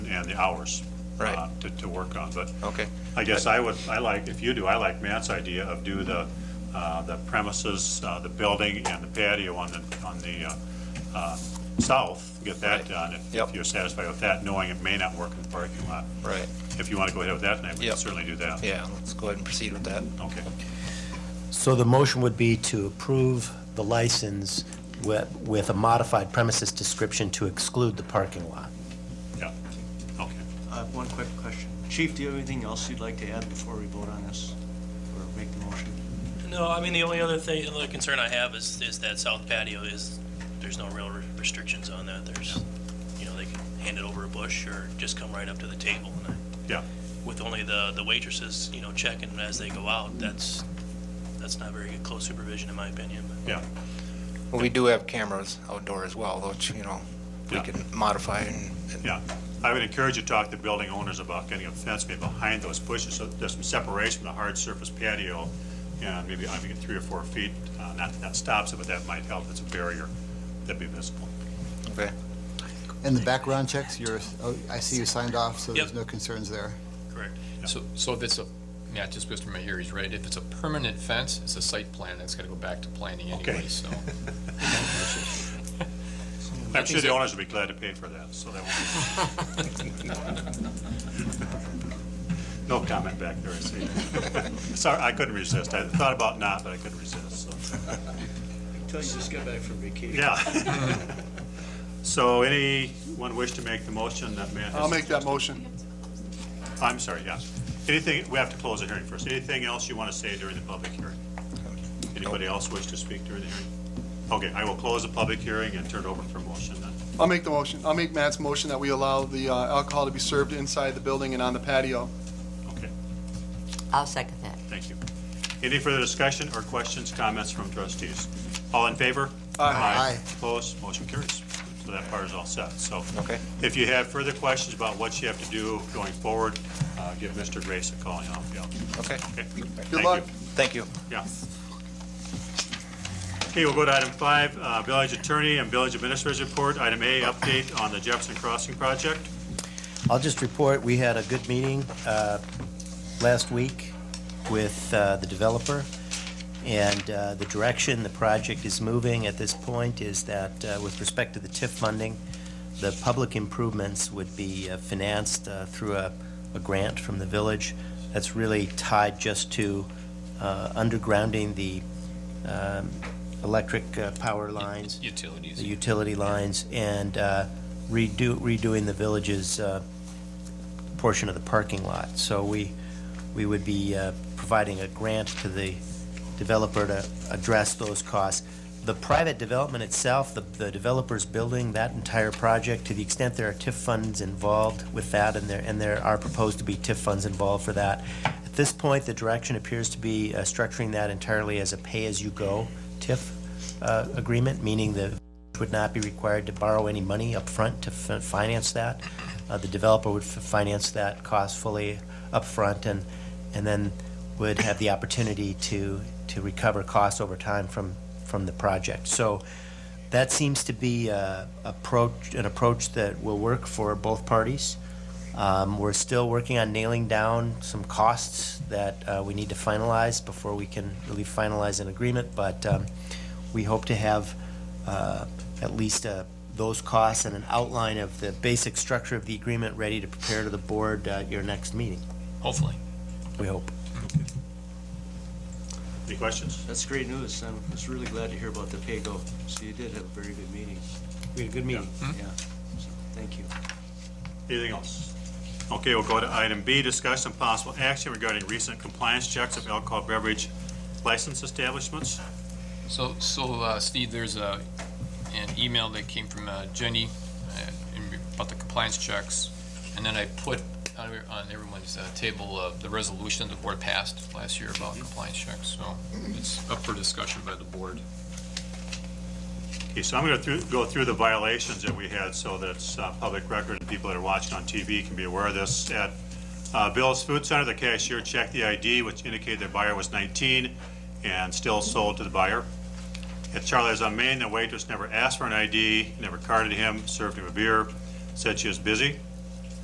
and the hours. Right. uh, To, to work on, but Okay. I guess I would, I like, if you do, I like Matt's idea of do the, uh, the premises, uh, the building and the patio on the, on the, uh, uh, south, get that Right. done, if- if Yep. you're satisfied with that, knowing it may not work in the parking lot. Right. If you want to go ahead with that tonight, we can Yep. certainly do that. Yeah, let's go ahead and proceed with that. Okay. So the motion would be to approve the license with, with a modified premises description to exclude the parking lot. Yeah, okay. I have one quick question. Chief, do you have anything else you'd like to add before we vote on this or make the motion? No, I mean, the only other thing, the only concern I have is, is that south patio is, there's no real re- restrictions on that. There's, you know, they can hand it over a bush or just come right up to the table. And I- Yeah, With only the, the waitresses, you know, checking as they go out, that's, that's not very good close supervision in my opinion. but- yeah, Well, we do have cameras outdoor as well, which, you know, we Yeah. can modify and, and- yeah. I would encourage you to talk to building owners about getting a fence maybe behind those bushes, so there's some separation from the hard surface patio, and maybe, I think, three or four feet, uh, not, that stops it, but that might help, it's a barrier that'd be visible. okay. And the background checks, you're, oh, I see you signed off, so there's Yep. no concerns there. Correct. So, so if it's a, yeah, just because my ear is right, if it's a permanent fence, it's a site plan, that's gotta go back to planning Okay. anyway, so. I'm sure the owners would be glad to pay for that, so that won't be. No comment back there, I see. Sorry, I couldn't resist. I thought about not, but I couldn't resist, so, Until you just get back from vacation. yeah. So anyone wish to make the motion that Matt has? I'll make that motion. I'm sorry, yeah. Anything, we have to close the hearing first. Anything else you want to say during the public hearing? Anybody else wish to speak during the hearing? Okay, I will close the public hearing and turn it over for motion then. I'll make the motion. I'll make Matt's motion that we allow the uh, alcohol to be served inside the building and on the patio. Okay, I'll second that. thank you. Any further discussion or questions, comments from trustees? All in favor? Aye. Opposed, motion carries. So that part is all set, so. Okay. If you have further questions about what you have to do going forward, uh, give Mr. Grace a call and I'll help you. Okay. Okay? Thank Good you. luck. Thank you. Yeah. Okay, we'll go to item five, uh, Village Attorney and Village Administrator's Report. Item A, update on the Jefferson Crossing project. I'll just report, we had a good meeting uh, last week with uh, the developer, and uh, the direction the project is moving at this point is that uh, with respect to the TIF funding, the public improvements would be uh, financed uh, through a a grant from the village that's really tied just to uh, undergrounding the um, electric uh, power lines Utilities. the utility lines and uh, redo, redoing the village's uh, portion of the parking lot. So we, we would be uh, providing a grant to the developer to address those costs. The private development itself, the, the developer's building, that entire project, to the extent there are TIF funds involved with that, and there, and there are proposed to be TIF funds involved for that. At this point, the direction appears to be uh, structuring that entirely as a pay-as-you-go TIF uh, agreement, meaning the would not be required to borrow any money upfront to fi- finance that. Uh, The developer would f- finance that cost fully upfront and, and then would have the opportunity to, to recover costs over time from, from the project. So that seems to be uh, approach, an approach that will work for both parties. Um, We're still working on nailing down some costs that uh, we need to finalize before we can really finalize an agreement, but um, we hope to have uh, at least uh, those costs and an outline of the basic structure of the agreement ready to prepare to the board uh, at your next meeting, Hopefully. we hope. Any questions? That's great news. I'm just really glad to hear about the Pago. So you did have a very good meeting. We had a good meeting. Yeah. So, Thank you. Anything else? Okay, we'll go to item B, discussion and possible action regarding recent compliance checks of alcohol beverage license establishments. So, so uh, Steve, there's a, an email that came from uh, Jenny uh, in- about the compliance checks. And then I put on every- on everyone's uh, table uh, the resolution the board passed last year about compliance checks. So it's up for discussion by the board. Okay, so I'm going to go through the violations that we had so that it's uh, public record and people that are watching on TV can be aware of this. At uh, Bill's Food Center, the cashier checked the ID, which indicated the buyer was 19 and still sold to the buyer. At Charlie's on Main, the waitress never asked for an ID, never carded him, served him a beer, said she was busy.